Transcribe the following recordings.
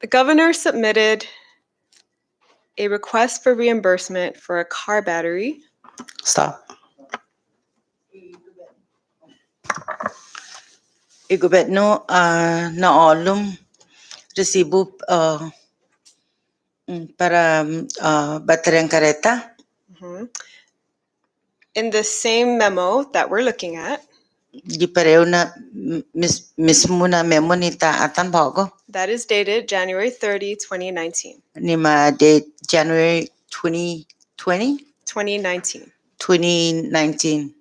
The governor submitted a request for reimbursement for a car battery. Stop. igubet no ah, naolum resibo ah, mm, para uh, baterían careta. Mhm. In the same memo that we're looking at, Di pareo na m- mis, mismo na memo ni taatan bago that is dated January 30, 2019. ni ma de January 2020, 2019. 2019.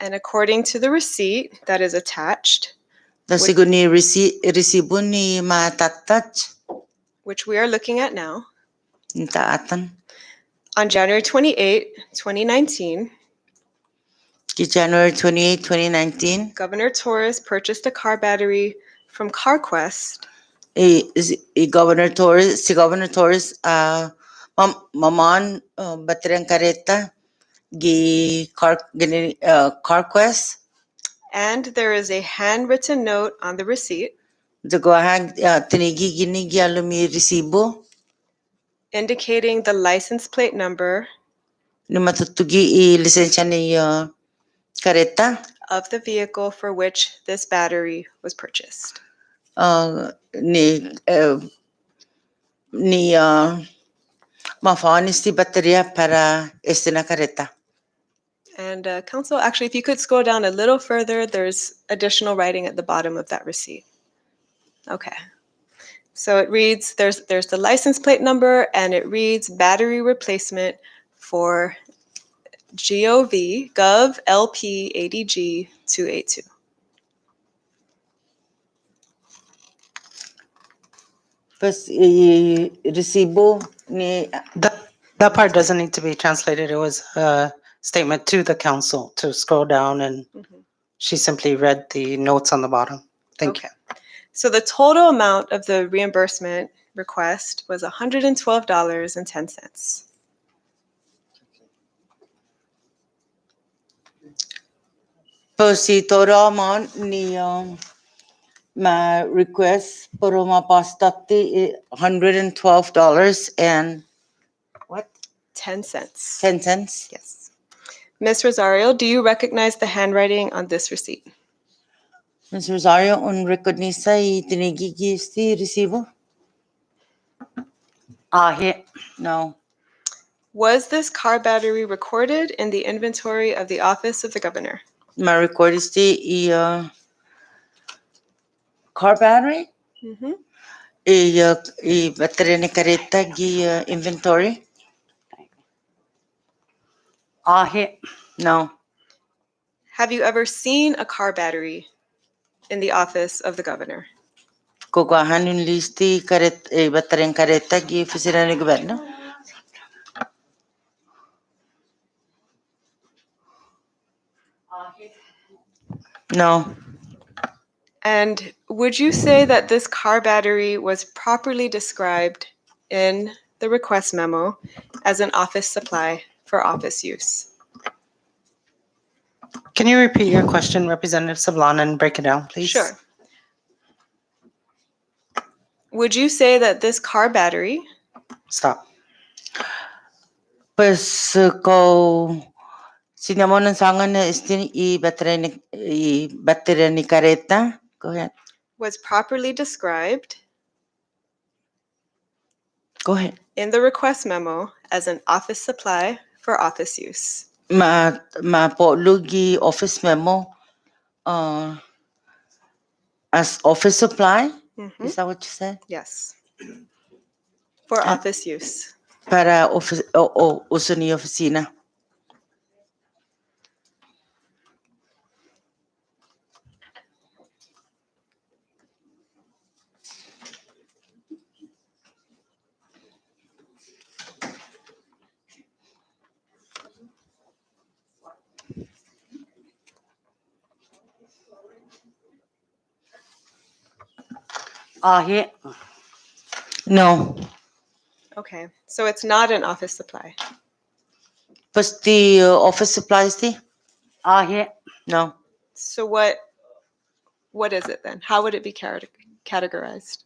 And according to the receipt that is attached, Nasigo ni resi, resibo ni matatat which we are looking at now, ni taatan. on January 28, 2019, Ki January 28, 2019, Governor Torres purchased a car battery from CarQuest i, is- i Governor Torres, si Governor Torres, uh, mam, mamon, uh, baterang kareta, gi car, gini, uh, CarQuest, and there is a handwritten note on the receipt dagohang, uh, tinigi gini gi alumi resibo, indicating the license plate number ni matutugi i lisensya ni, E, uh, kareta, of the vehicle for which this battery was purchased. uh, ni, uh, ni, uh, mafaonis ti bateria para este na kareta. And uh, council, actually, if you could scroll down a little further, there's additional writing at the bottom of that receipt. Okay. So it reads, there's, there's the license plate number and it reads battery replacement for GOV, Gov LP ADG 282. Pues y E, recibo ni That, that part doesn't need to be translated. It was a statement to the council to scroll down and Mhm. she simply read the notes on the bottom. Thank Okay. you. So the total amount of the reimbursement request was $112.10. pues si todo amount ni um, my request por uma pasta ti hundred and twelve dollars and what 10 cents. ten cents. Yes. Ms. Rosario, do you recognize the handwriting on this receipt? Ms. Rosario, un reconisa y tinigigi este recibo? Ah, he, No. Was this car battery recorded in the inventory of the office of the governor? My record este y uh, car battery y uh, y batería ni careta y uh, inventory. ah, he, No. Have you ever seen a car battery in the office of the governor? Kukuhaan yung listi karet, eh, batareng kareta gi oficina ni gobyerno. No. And would you say that this car battery was properly described in the request memo as an office supply for office use? can you repeat your question, Representative Sablan, and break it down, please? Sure. Would you say that this car battery Stop. Pues eh, kau sinamon ng sangan na isti i batareng ni, i batareng ni kareta. Go ahead. was properly described Go ahead. in the request memo as an office supply for office use. Ma, ma po lugi office memo uh, as office supply. Mhm, Is that what you said? Yes. For office use. Para office, o o uso ni oficina. Ah, he, No. Okay, so it's not an office supply. Pues the uh, office supplies the? ah, he, No. So what, what is it then? How would it be cate- categorized?